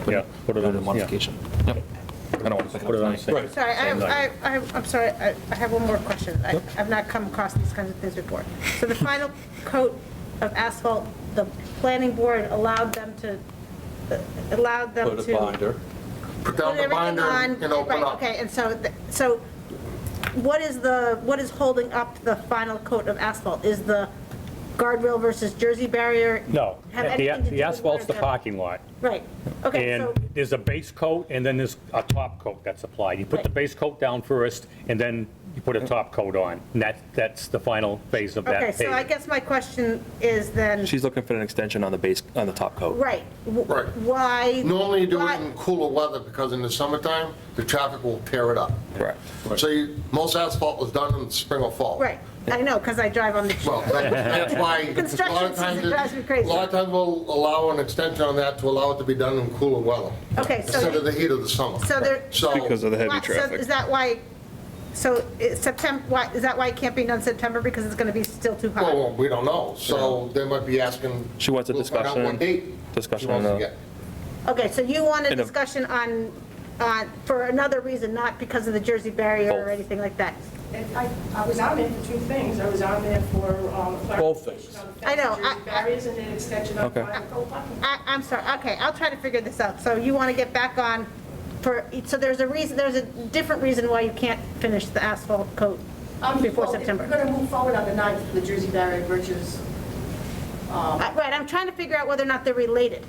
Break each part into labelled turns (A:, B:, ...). A: put
B: Yeah,
A: it
B: put it on
A: under
B: as- yeah.
A: modification. Yep.
B: I don't want to put it on the same.
C: Sorry, I,
B: same
C: I,
B: line.
C: I- I'm sorry, I I have one more question. I- I've not come across these kinds of things before. So the final coat of asphalt, the planning board allowed them to, uh, allowed them to.
A: Put a binder.
D: Put
C: put
D: down the
C: everything
D: binder
C: on-
D: and open
C: right,
D: up.
C: Okay, and so, th- so what is the, what is holding up the final coat of asphalt? Is the guardrail versus Jersey barrier?
B: No,
C: Have
B: the
C: anything to do
B: the
C: with
B: asphalt's the
C: water?
B: parking lot.
C: Right, okay,
B: And
C: so,
B: there's a base coat, and then there's a top coat that's applied. You put the
C: Right.
B: base coat down first, and then you put a top coat on. And that, that's the final phase of that
C: okay,
B: paving.
C: so I guess my question is then,
A: She's looking for an extension on the base, on the top coat.
C: right, w-
D: Right.
C: why?
D: Normally you do
C: why-
D: it in cooler weather because in the summertime, the traffic will tear it up.
A: Correct.
D: So you- most asphalt was done in the spring or fall.
C: Right, I know, because I drive on the,
D: Well, that- that's why. a lot
C: Construction
D: of times
C: season drives me crazy.
D: A lot of times we'll allow an extension on that to allow it to be done in cooler weather.
C: Okay, so-
D: Instead of the heat of the summer.
C: so there.
D: So- Because
E: of the heavy
C: Why- so
E: traffic.
C: Is that why, so September, why, is that why it can't be done September, because it's going to be still too hot?
D: Well, we don't know, so they might be asking.
A: She wants a
D: we'll find out
A: discussion-
D: what date
A: discussion
D: she wants
A: on
D: to
A: the-
D: get.
C: Okay, so you want a
A: In a-
C: discussion on, on, for another reason, not because of the Jersey barrier or
A: Both.
C: anything like that?
F: And I, I was on there for two things. I was on there for um,
A: Both
F: clarification
A: things.
F: on the
C: I know,
F: fence,
C: I-
F: Jersey barriers, and then extension on
A: Okay.
F: final coat bucket.
C: I, I'm sorry, okay, I'll try to figure this out. So you want to get back on for, so there's a reason, there's a different reason why you can't finish the asphalt coat
G: Um,
C: before
G: well, if We're
C: September.
G: going to move forward on the 9th for the Jersey barrier bridges.
C: I- Right, I'm trying to figure out whether or not they're related.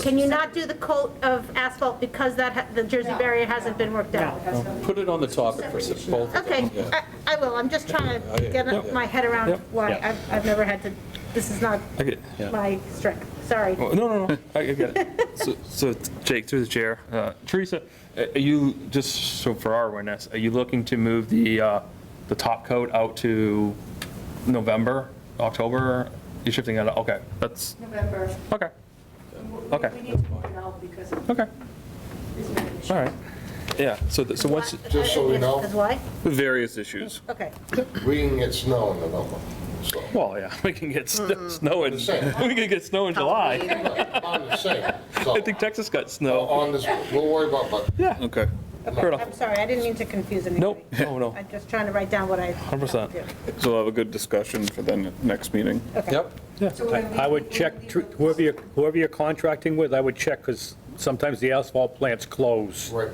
C: Can you not do the coat of asphalt because that, ha- the Jersey barrier hasn't been worked out?
E: Put it on the topic for s- both. of them.
C: Okay,
E: Yeah.
C: I, I will, I'm just trying to
E: Okay.
C: get my head around
A: Yep.
C: why,
B: Yeah.
C: I've, I've never had to, this is not
A: I get,
C: my strength, sorry.
A: Well, no, no, no, I I get it. So- So Jake, through the chair, uh, Teresa, a- are you, just so for our awareness, are you looking to move the, uh, the top coat out to November, October? You're shifting it, out, okay, that's,
G: November.
A: okay,
G: We-
A: Okay.
G: We need to move it out because of
A: okay,
G: this is
A: all
G: an
A: right. Yeah, so, th- so once,
D: Just so we know.
C: Uh, Because why?
E: Various issues.
C: Okay,
D: We can get snow in November, so.
A: well, yeah, we can get
C: Mm-hmm.
A: sn- snow in,
D: The same.
A: we can get snow in July.
D: On the same,
A: I think
D: so,
A: Texas got snow.
D: on this, we'll worry about, but
A: Yeah,
E: Okay.
A: fair enough.
C: I'm sorry, I didn't mean to confuse anybody.
A: Nope, Oh, no, no.
C: I'm just trying to write down what I.
A: 100%.
E: So we'll have a good discussion for the ne- next meeting.
A: Yep.
B: I would check, tr- whoever you're, whoever you're contracting with, I would check, because sometimes the asphalt plants close.
D: right,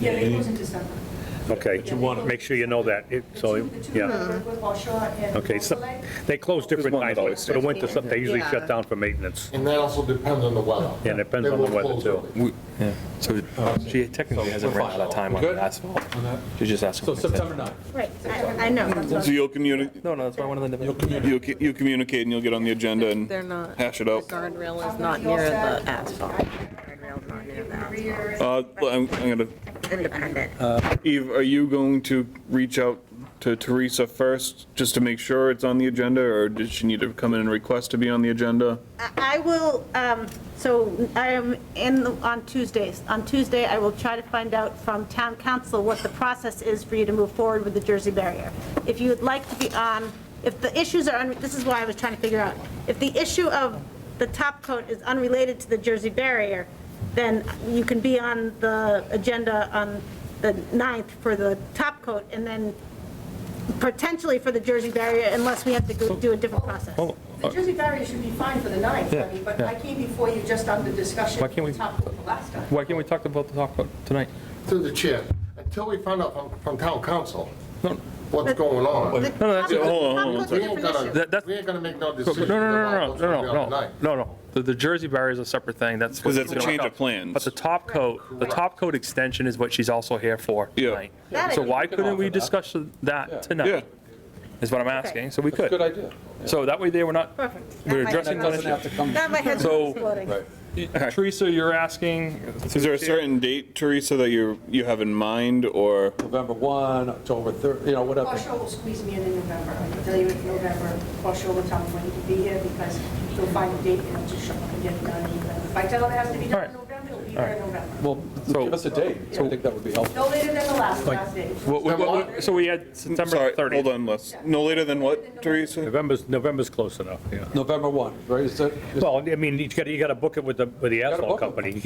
G: Yeah, it goes in December.
B: Okay, you want to make sure you know that, it- so,
G: The two
B: yeah.
G: members with Wausau and
B: Okay, so,
G: Wausau Lake.
B: they close different
E: one that
B: times,
E: always
B: but for the
E: stays.
B: winter, some- they usually
G: Yeah.
B: shut down for maintenance.
D: and that also depends on the weather.
B: Yeah, it depends
D: They
B: on the
D: will
B: weather,
D: close
B: too.
D: early.
A: Yeah, so uh, she technically hasn't ran out of time on the asphalt. She's just asking.
H: So
A: for an extension.
H: September 9th.
C: Right, I, I know.
G: That's
H: So
G: what-
H: you'll communicate,
A: No, no, that's why I wanted to.
H: you'll, c- you'll communicate and you'll get on the agenda and
I: They're not.
H: hash it out.
I: The guardrail is
G: I'm
I: not
G: gonna be
I: near
G: all
I: the
G: set.
I: asphalt.
G: Guardrail's not near the asphalt.
H: Uh, well, I'm, I'm gonna,
I: Independent.
H: Eve, are you going to reach out to Teresa first, just to make sure it's on the agenda? Or does she need to come in and request to be on the agenda?
C: I will, um, so I am in, the- on Tuesdays. On Tuesday, I will try to find out from town council what the process is for you to move forward with the Jersey barrier. If you would like to be on, if the issues are, un- this is why I was trying to figure out, if the issue of the top coat is unrelated to the Jersey barrier, then you can be on the agenda on the 9th for the top coat, and then potentially for the Jersey barrier, unless we have to go do a different process.
G: The Jersey barrier should be fine for the 9th, I mean, but I came before you just on the discussion.
A: Why can't we-
G: Top of the last time.
A: Why can't we talk about the talk about tonight?
D: Through the chair, until we find out from, from town council
A: No,
D: what's going on,
A: No, no, that's-
C: Top coat-
H: hold on,
C: top
H: hold
C: coat's a
D: we
C: different issue.
D: ain't
A: That-
D: gonna,
A: that's-
D: we ain't gonna make
A: no,
D: no
A: no,
D: decision about
A: no, no,
D: what's gonna be
A: no,
D: on
A: no,
D: tonight.
A: no, no. The, the Jersey barrier is a separate thing, that's.
H: Because that's a
A: what's gonna
H: change
A: work
H: of
A: out.
H: plans.
A: But the top coat, the top coat extension is what she's also here for
H: Yeah.
A: tonight.
C: That I
A: So
C: can-
A: why couldn't we discuss that
H: Yeah.
A: tonight? Is what I'm asking, so we
E: That's a good
A: could.
E: idea.
A: So that way there, we're not,
C: Perfect.
A: we're
C: Now my head
A: addressing
C: knows.
A: that
E: Doesn't have to come.
C: Now my head's
A: So-
C: exploding.
A: Teresa, you're asking.
H: Is there a certain date, Teresa, that you, you have in mind, or?
E: November 1, October 3rd, you know, whatever.
G: Wausau will squeeze me in in November, I can tell you in November, Wausau will tell me when you can be here because he'll find a date and I'll just show up and get it done in November. If I tell him it has to be done in
A: All right.
G: November, it'll be here in November.
E: Well,
A: So-
E: give us a date. I think that would be helpful.
G: No later than the last, last day.
A: What- what- what- So we had September
H: Sorry,
A: 30th.
H: Hold on, Les. No later than what, Teresa?
B: November's, November's close enough, yeah.
E: November 1, right? Is that? is-
B: Well, I mean, you gotta, you gotta book it with the, with the
E: book
B: asphalt
E: it.
B: company. You